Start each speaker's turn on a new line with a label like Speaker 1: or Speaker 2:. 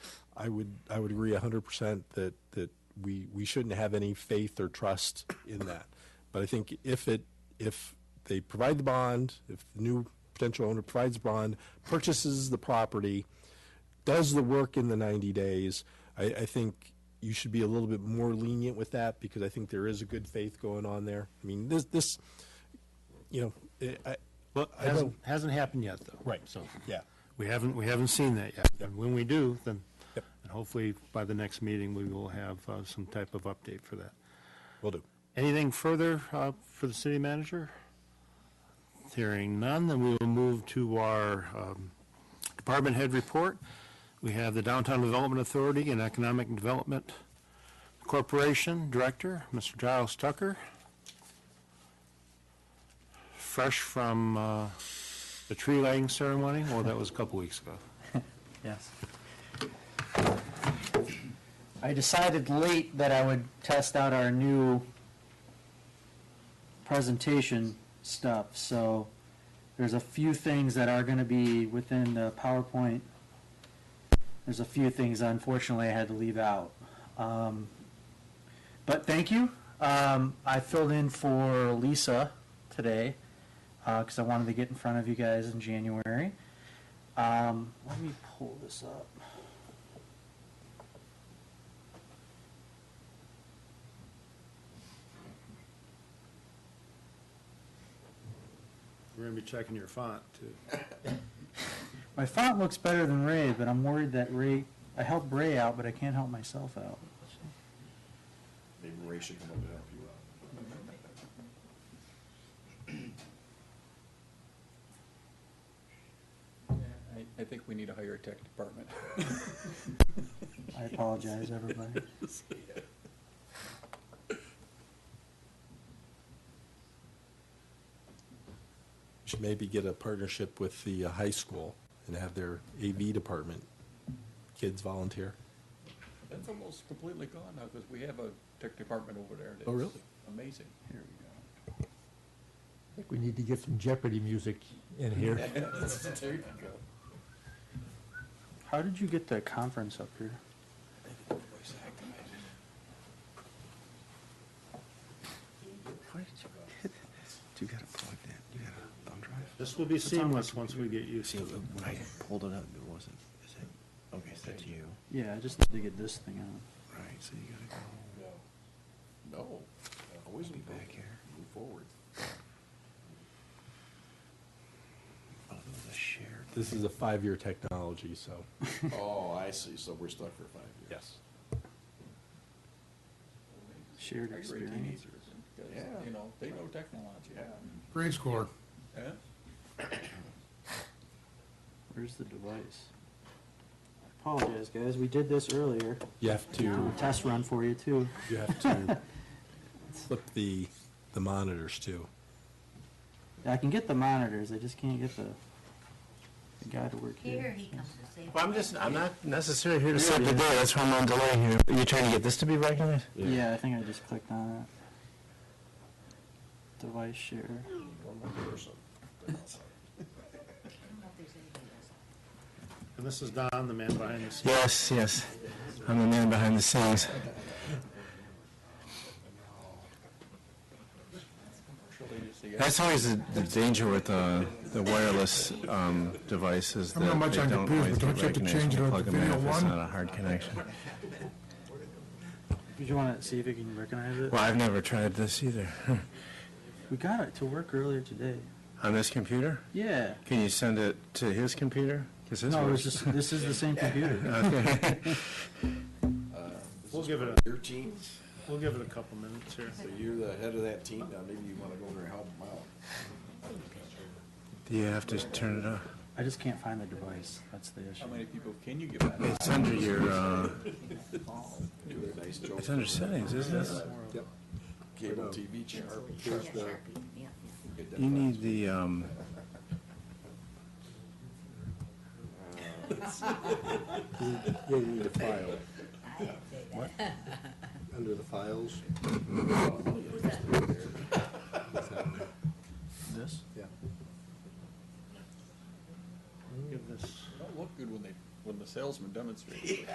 Speaker 1: I would, I would agree hundred percent that, that we, we shouldn't have any faith or trust in that. But I think if it, if they provide the bond, if the new potential owner provides bond, purchases the property, does the work in the ninety days, I, I think you should be a little bit more lenient with that because I think there is a good faith going on there. I mean, this, this, you know, it- I, I
Speaker 2: Hasn't,
Speaker 1: don't-
Speaker 2: hasn't happened yet, though.
Speaker 1: Right.
Speaker 2: So.
Speaker 1: yeah.
Speaker 2: We haven't, we haven't seen that yet. And when we do, then,
Speaker 1: Yep.
Speaker 2: and hopefully by the next meeting, we will have uh, some type of update for that.
Speaker 1: Will do.
Speaker 2: Anything further uh, for the city manager? Hearing none, then we will move to our um, department head report. We have the Downtown Development Authority and Economic Development Corporation Director, Mr. Giles Tucker. Fresh from uh, the tree lighting ceremony, well, that was a couple weeks ago.
Speaker 3: Yes. I decided late that I would test out our new presentation stuff, so there's a few things that are gonna be within the PowerPoint. There's a few things unfortunately I had to leave out. Um, But thank you. Um, I filled in for Lisa today, uh, cause I wanted to get in front of you guys in January. Um, let me pull this up.
Speaker 2: We're going to be checking your font, too.
Speaker 3: My font looks better than Ray, but I'm worried that Ray, I helped Ray out, but I can't help myself out.
Speaker 4: Maybe Ray should come up and help you out.
Speaker 5: I, I think we need to hire a tech department.
Speaker 3: I apologize, everybody.
Speaker 1: Should maybe get a partnership with the uh, high school and have their AV department, kids volunteer.
Speaker 5: That's almost completely gone now, because we have a tech department over there.
Speaker 1: Oh,
Speaker 5: that's
Speaker 1: really?
Speaker 5: Amazing. Here we
Speaker 6: I think we need to get some Jeopardy music in here.
Speaker 5: go. There you go.
Speaker 3: How did you get the conference up here?
Speaker 5: Voice activated.
Speaker 4: You got it plugged in, you got a thumb drive?
Speaker 2: This will be seamless once we get used
Speaker 4: See,
Speaker 2: to it.
Speaker 4: when I pulled it up, it wasn't, is it, okay, that's you,
Speaker 3: Yeah, I just need to get this thing out.
Speaker 4: right, so you gotta go,
Speaker 5: No, always
Speaker 4: be
Speaker 5: move
Speaker 4: back here.
Speaker 5: forward.
Speaker 4: Oh, there was a shared.
Speaker 1: This is a five-year technology, so.
Speaker 4: Oh, I see, so we're stuck for five years.
Speaker 1: Yes.
Speaker 3: Shared
Speaker 5: Hire a
Speaker 3: experience.
Speaker 5: teenager, because,
Speaker 4: Yeah.
Speaker 5: you know, they know technology.
Speaker 4: Yeah.
Speaker 6: Grade score.
Speaker 5: Yeah?
Speaker 3: Where's the device? I apologize, guys. We did this earlier.
Speaker 1: You have to,
Speaker 3: Test run for you too.
Speaker 1: you have to flip the, the monitors too.
Speaker 3: I can get the monitors. I just can't get the, the guy to work
Speaker 7: Here
Speaker 3: here.
Speaker 7: he comes to save.
Speaker 8: Well, I'm just, I'm not necessarily here to set the day, that's why I'm on delay here. Are you trying to get this to be recognized?
Speaker 3: Yeah, I think I just clicked on it. Device share.
Speaker 4: One more person.
Speaker 7: I don't know if there's anybody else.
Speaker 2: And this is Don, the man behind the scenes.
Speaker 8: Yes, yes, I'm the man behind the scenes.
Speaker 5: Commercially, you see,
Speaker 8: That's always the the danger with uh, the wireless um, devices,
Speaker 9: I'm not
Speaker 8: that
Speaker 9: much
Speaker 8: they
Speaker 9: on
Speaker 8: don't
Speaker 9: computers,
Speaker 8: always
Speaker 9: but
Speaker 8: get
Speaker 9: don't you have to change it on
Speaker 8: recognized when you plug them in
Speaker 9: video
Speaker 8: if it's
Speaker 9: one?
Speaker 8: not a hard connection.
Speaker 3: Did you want to see if you can recognize it?
Speaker 8: Well, I've never tried this either.
Speaker 3: We got it to work earlier today.
Speaker 8: On this computer?
Speaker 3: Yeah.
Speaker 8: Can you send it to his computer? 'Cause his
Speaker 3: No, it was
Speaker 8: works.
Speaker 3: just, this is the same computer.
Speaker 8: Okay.
Speaker 2: We'll give it a,
Speaker 4: Your team,
Speaker 2: we'll give it a couple minutes here.
Speaker 4: so you're the head of that team now, maybe you wanna go over and help them out.
Speaker 8: Do you have to turn it off?
Speaker 3: I just can't find the device. That's the issue.
Speaker 5: how many people can you give out?
Speaker 8: It's under your, uh,
Speaker 4: Do a nice job.
Speaker 8: it's under settings, isn't it?
Speaker 4: Cable
Speaker 1: uh,
Speaker 4: TV channel.
Speaker 7: Yeah, Sharpie, yeah, yeah.
Speaker 4: Get that
Speaker 8: You
Speaker 4: done.
Speaker 8: need the, um,
Speaker 1: You need a file.
Speaker 7: I didn't say that.
Speaker 1: Under the files?
Speaker 4: Oh,
Speaker 7: Who's that?
Speaker 3: This?
Speaker 2: Give this.
Speaker 5: Don't look good when they, when the salesman demonstrates.